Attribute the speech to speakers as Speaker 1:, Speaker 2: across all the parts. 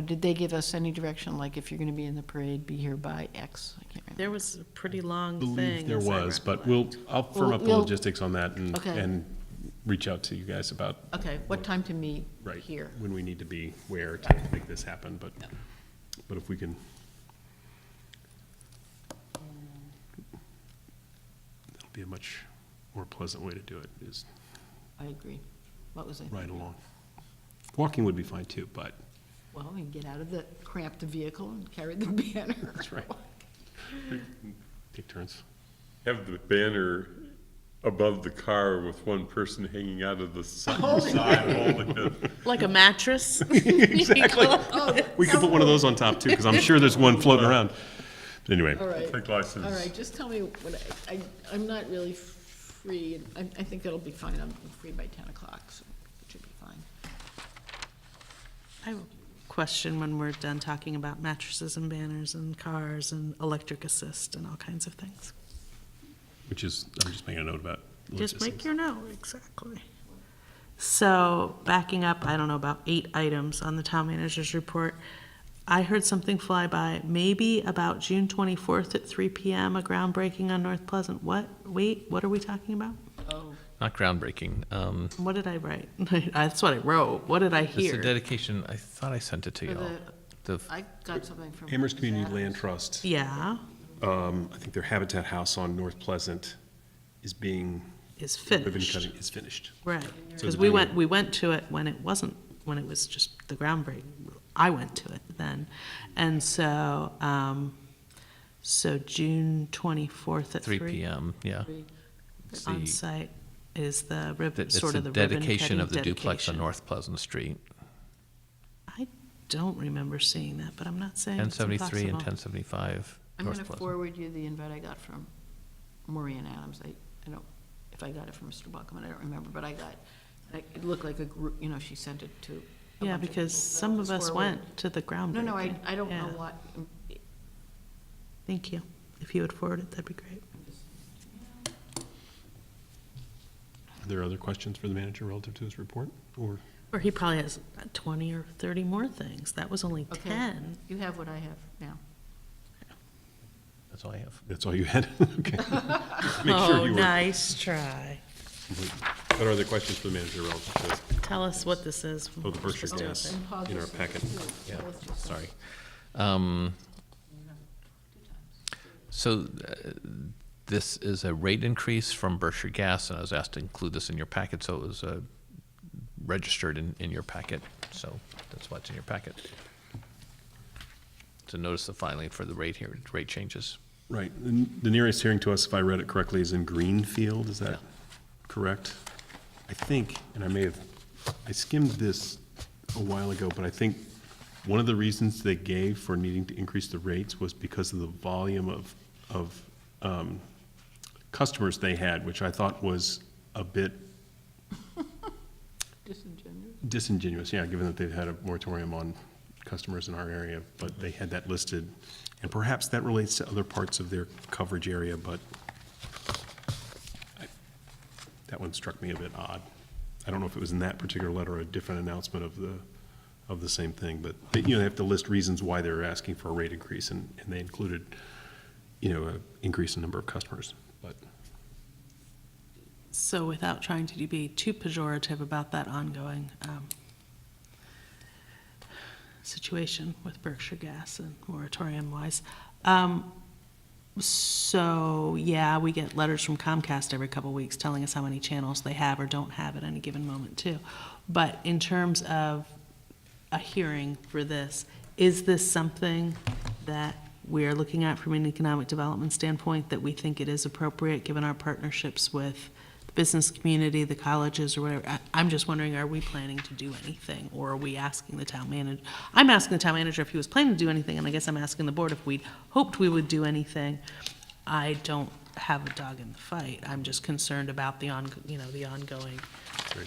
Speaker 1: Did they give us any direction, like if you're going to be in the parade, be here by X? I can't remember.
Speaker 2: There was a pretty long thing.
Speaker 3: believe there
Speaker 2: as I
Speaker 3: was, but
Speaker 2: recollect.
Speaker 3: we'll, I'll firm
Speaker 1: We'll-
Speaker 3: up the
Speaker 1: we'll-
Speaker 3: logistics on that and,
Speaker 1: Okay.
Speaker 3: and reach out to you guys about,
Speaker 1: Okay, what time to meet
Speaker 3: right,
Speaker 1: here?
Speaker 3: when we need to be where to make this happen, but, but if we can. That'll be a much more pleasant way to do it, is
Speaker 1: I agree. What was I?
Speaker 3: ride along. Walking would be fine too, but,
Speaker 1: Well, we can get out of the cramped vehicle and carry the banner.
Speaker 3: that's right. Take turns.
Speaker 4: Have the banner above the car with one person hanging out of the side, holding it.
Speaker 2: Like a mattress?
Speaker 3: Exactly. Oh, We could put one of those on top too, because I'm sure there's one floating around. But Anyway.
Speaker 1: All right,
Speaker 4: Take license.
Speaker 1: all right, just tell me what, I, I- I'm not really free, and I, I think it'll be fine, I'm free by ten o'clock, so it should be fine.
Speaker 2: I have a question when we're done talking about mattresses and banners and cars and electric assist and all kinds of things.
Speaker 3: Which is, I'm just making a note about.
Speaker 2: Just
Speaker 3: logistics.
Speaker 2: make your note, exactly. So, backing up, I don't know, about eight items on the town manager's report. I heard something fly by, maybe about June twenty-fourth at three PM, a groundbreaking on North Pleasant. What? Wait, what are we talking about?
Speaker 1: Oh,
Speaker 5: Not groundbreaking. Um,
Speaker 2: What did I write? That's what I wrote. What did I
Speaker 5: it's a
Speaker 2: hear?
Speaker 5: dedication. I thought I sent it to
Speaker 1: For
Speaker 5: y'all. The,
Speaker 1: I got something from.
Speaker 3: Amherst Community
Speaker 1: Zach.
Speaker 3: Land Trust,
Speaker 2: Yeah,
Speaker 3: um, I think their Habitat House on North Pleasant is being,
Speaker 2: is
Speaker 3: ribbon
Speaker 2: finished.
Speaker 3: cutting is finished.
Speaker 2: Right,
Speaker 3: So
Speaker 2: because
Speaker 3: the
Speaker 2: we
Speaker 3: big-
Speaker 2: went, we went to it when it wasn't, when it was just the groundbreaking. I went to it then. And so, um, so June twenty-fourth at
Speaker 5: 3
Speaker 2: three
Speaker 5: p.m. Yeah. It's the-
Speaker 2: on site is the ribbon,
Speaker 5: It's
Speaker 2: sort
Speaker 5: the
Speaker 2: of the ribbon
Speaker 5: dedication
Speaker 2: cutting
Speaker 5: of the duplex on
Speaker 2: dedication.
Speaker 5: North Pleasant Street,
Speaker 2: I don't remember seeing that, but I'm not saying it's
Speaker 5: 1073 and
Speaker 2: impossible.
Speaker 5: 1075
Speaker 1: I'm
Speaker 5: North
Speaker 1: gonna
Speaker 5: Pleasant.
Speaker 1: forward you the invite I got from Maureen Adams, I, I don't, if I got it from Mr. Buckman, I don't remember, but I got, like, it looked like a group, you know, she sent it to. a
Speaker 2: Yeah,
Speaker 1: bunch of people, so
Speaker 2: because
Speaker 1: it
Speaker 2: some
Speaker 1: was
Speaker 2: of us
Speaker 1: forwarded.
Speaker 2: went to the groundbreaking.
Speaker 1: No, no, I, I don't know
Speaker 2: Yeah.
Speaker 1: what, um,
Speaker 2: Thank you. If you would forward it, that'd be great.
Speaker 3: Are there other questions for the manager relative to his report? Or,
Speaker 2: Or he probably has twenty or thirty more things. That was only
Speaker 1: Okay.
Speaker 2: ten.
Speaker 1: you have what I have now.
Speaker 5: That's all I have.
Speaker 3: that's all you had? Okay. Make sure you were.
Speaker 2: Oh, nice try.
Speaker 3: What are the questions for the manager relative to
Speaker 2: Tell us what this is.
Speaker 3: Oh, the
Speaker 2: We're
Speaker 3: Berkshire
Speaker 2: supposed to
Speaker 3: gas.
Speaker 2: do
Speaker 1: Pause
Speaker 3: in our
Speaker 1: this.
Speaker 3: packet?
Speaker 5: Yeah, sorry. Um, So uh, this is a rate increase from Berkshire Gas, and I was asked to include this in your packet, so it was uh, registered in, in your packet, so that's why it's in your packet. To notice the filing for the rate here, rate changes.
Speaker 3: Right, the the nearest hearing to us, if I read it correctly, is in Greenfield, is that correct? I think, and I may have, I skimmed this a while ago, but I think one of the reasons they gave for needing to increase the rates was because of the volume of, of um, customers they had, which I thought was a bit
Speaker 1: Disingenuous.
Speaker 3: disingenuous, yeah, given that they've had a moratorium on customers in our area, but they had that listed. And perhaps that relates to other parts of their coverage area, but I- that one struck me a bit odd. I don't know if it was in that particular letter or a different announcement of the, of the same thing, but, they- you know, they have to list reasons why they're asking for a rate increase, and, and they included, you know, an increase in number of customers, but.
Speaker 2: it. So without trying to be too pejorative about that ongoing um, situation with Berkshire Gas and moratorium wise. Um, So, yeah, we get letters from Comcast every couple weeks telling us how many channels they have or don't have at any given moment too. But in terms of a hearing for this. Is this something that we are looking at from an economic development standpoint that we think it is appropriate, given our partnerships with the business community, the colleges, or whatever? I, I'm just wondering, are we planning to do anything, or are we asking the town manager? I'm asking the town manager if he was planning to do anything, and I guess I'm asking the board if we hoped we would do anything. I don't have a dog in the fight. I'm just concerned about the on, you know, the ongoing
Speaker 3: Right.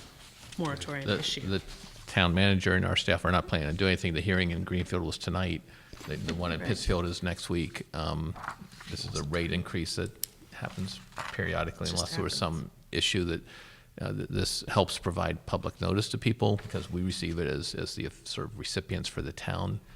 Speaker 2: moratorium
Speaker 5: The,
Speaker 2: issue.
Speaker 5: the town manager and our staff are not planning to do anything. The hearing in Greenfield was tonight. The, the one in Pittsfield is next week. Um, this is a rate increase that happens periodically
Speaker 2: Just
Speaker 5: unless there was
Speaker 2: happens.
Speaker 5: some issue that Uh, th- This helps provide public notice to people because we receive it as, as the sort of recipients for the town.